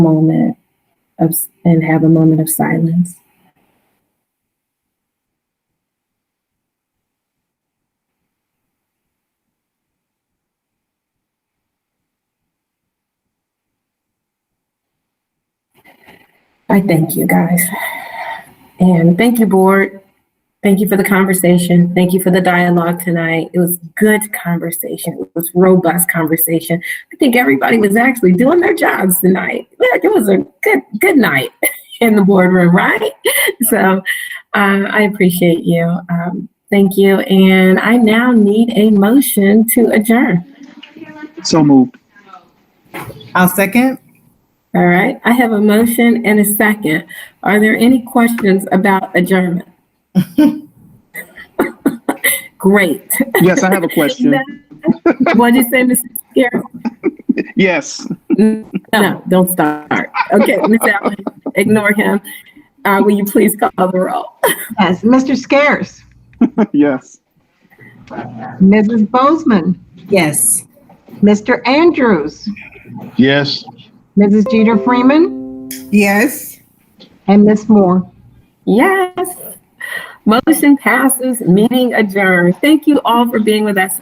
moment of, and have a moment of silence. I thank you guys. And thank you, board. Thank you for the conversation. Thank you for the dialogue tonight. It was good conversation. It was robust conversation. I think everybody was actually doing their jobs tonight. Look, it was a good good night in the boardroom, right? So uh, I appreciate you. Um, thank you. And I now need a motion to adjourn. So moved. I'll second. All right. I have a motion and a second. Are there any questions about adjournment? Great. Yes, I have a question. What'd you say, Mrs. Garrett? Yes. No, don't start. Okay, Ms. Allen, ignore him. Uh, will you please call the roll? Yes, Mr. Scares, Yes. Mrs. Bozeman, Yes. Mr. Andrews, Yes. Mrs. Jeter Freeman, Yes. and Miss Moore. Yes. Motion passes, meeting adjourned. Thank you all for being with us